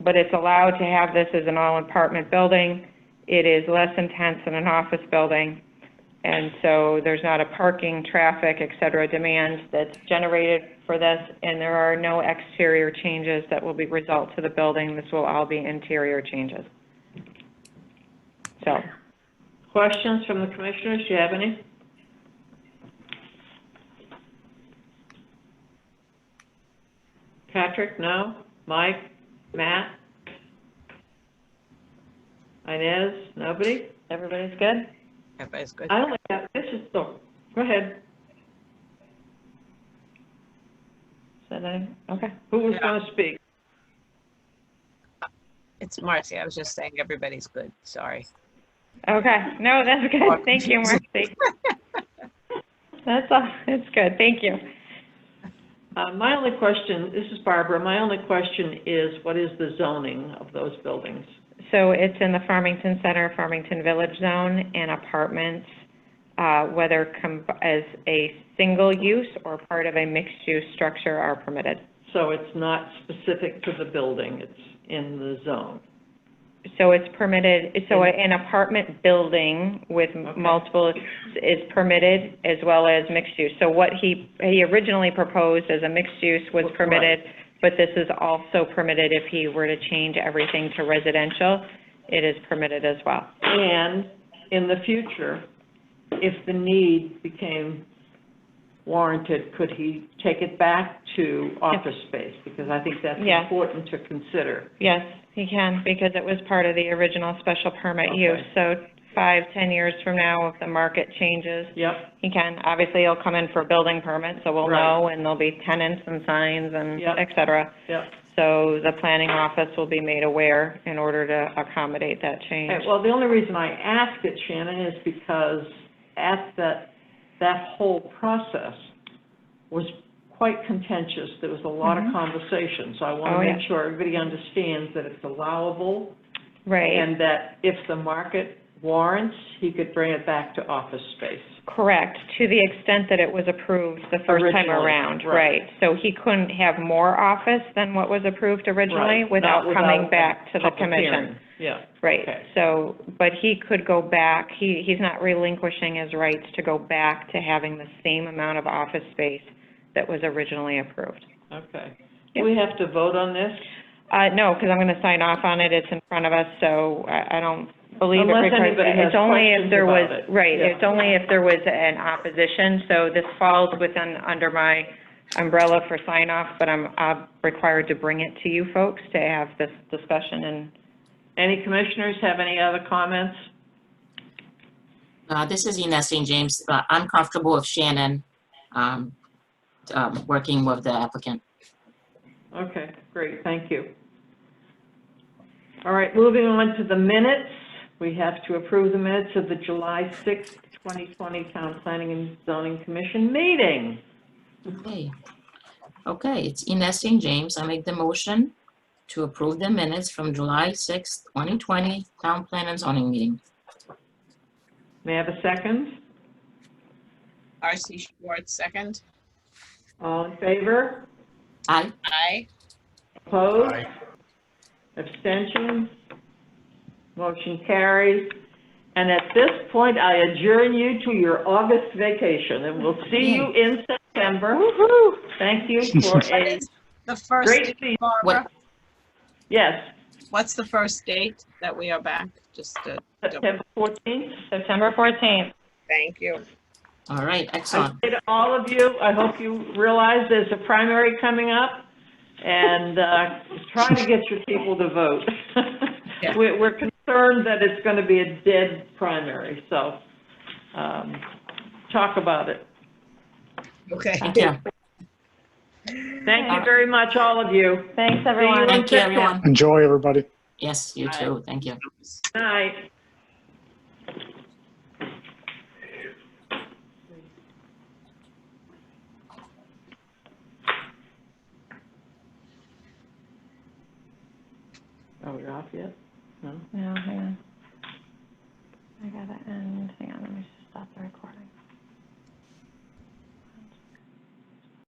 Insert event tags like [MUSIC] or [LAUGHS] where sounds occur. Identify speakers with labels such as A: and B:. A: but it's allowed to have this as an all-apartment building. It is less intense than an office building, and so there's not a parking, traffic, et cetera, demand that's generated for this, and there are no exterior changes that will be result to the building. This will all be interior changes. So,
B: Questions from the commissioners, do you have any? Patrick, no? Mike? Matt? Inez, nobody?
A: everybody's good?
C: Everybody's good.
B: I only got, this is the, go ahead,
A: Said anything? Okay.
B: who was gonna speak?
C: It's Marcy. I was just saying everybody's good. Sorry.
A: Okay, no, that's good, thank you, Marcy. That's all, that's good, thank you.
B: Uh, my only question, this is Barbara, my only question is, what is the zoning of those buildings?
A: So it's in the Farmington Center, Farmington Village Zone, and apartments, uh, whether com- as a single use or part of a mixed-use structure are permitted.
B: So it's not specific to the building, it's in the zone.
A: So it's permitted, so an apartment building with multiple is permitted as well as mixed use. So what he, he originally proposed as a mixed use was
B: Right.
A: permitted, but this is also permitted if he were to change everything to residential, it is permitted as well.
B: And in the future, if the need became warranted, could he take it back to office space? Because I think that's
A: Yeah.
B: important to consider.
A: Yes, he can, because it was part of the original special permit use.
B: Okay.
A: So five, ten years from now, if the market changes,
B: Yep,
A: he can. Obviously, he'll come in for a building permit, so we'll
B: Right.
A: know, and there'll be tenants and signs and
B: Yep.
A: et cetera.
B: yep.
A: So the planning office will be made aware in order to accommodate that change.
B: Okay, Well, the only reason I ask it, Shannon, is because at that, that whole process was quite contentious. There was a lot of
A: Mhm.
B: conversation, so I
A: Oh,
B: want
A: yeah.
B: to make sure everybody understands that it's allowable
A: Right,
B: And that if the market warrants, he could bring it back to office space.
A: correct, to the extent that it was approved the first time
B: Originally,
A: around,
B: right.
A: right. So he couldn't have more office than what was approved originally
B: Right,
A: without
B: not
A: coming
B: a
A: back to the
B: public
A: commission.
B: hearing. Yeah,
A: Right,
B: Okay.
A: so, but he could go back, he, he's not relinquishing his rights to go back to having the same amount of office space that was originally approved.
B: okay.
A: Yeah.
B: Do we have to vote on this?
A: Uh, no, because I'm going to sign off on it, it's in front of us, so I, I don't believe it
B: Unless
A: requires.
B: anybody has
A: It's only if
B: questions
A: there was-
B: about it.
A: Right,
B: Yeah.
A: it's only if there was an opposition, so this falls within, under my umbrella for sign off, but I'm, uh required to bring it to you folks to have this discussion and,
B: Any commissioners have any other comments?
D: Uh, This is Ines St. James. Uh, I'm comfortable with Shannon um, um, working with the applicant.
B: Okay, great, thank you. All right, moving on to the minutes. We have to approve the minutes of the July 6th, 2020 Town Planning and Zoning Commission meeting.
D: Okay, Okay. it's Ines St. James. I make the motion to approve the minutes from July 6th, 2020 Town Plan and Zoning Meeting.
B: May I have a second?
C: RC Schwartz, second.
B: All in favor?
D: Aye.
C: Aye.
B: Opposed? Abstentions? Motion carries. And at this point, I adjourn you to your August vacation, and we'll see you in September. Thank you for
C: What
B: a
C: is the first,
B: great
C: date,
B: season.
D: What?
C: Barbara?
B: Yes,
C: What's the first date that we are back? Just to,
B: September 14th.
A: September fourteenth.
C: thank you.
D: All right,
B: I
D: excellent.
B: say to all of you, I hope you realize there's a primary coming up, and uh, try to get your people to vote. [LAUGHS]
C: Yeah.
B: We're we're concerned that it's going to be a dead primary, so um, talk about it.
C: Okay.
D: Thank you.
B: Thank you very much, all of you.
A: Thanks, everyone.
D: Thank you, everyone.
E: Enjoy, everybody.
D: Yes, you too. Thank you.
B: Good Night. Are we off yet? No?
A: No, hang on. I gotta end, hang on, let me just stop the recording.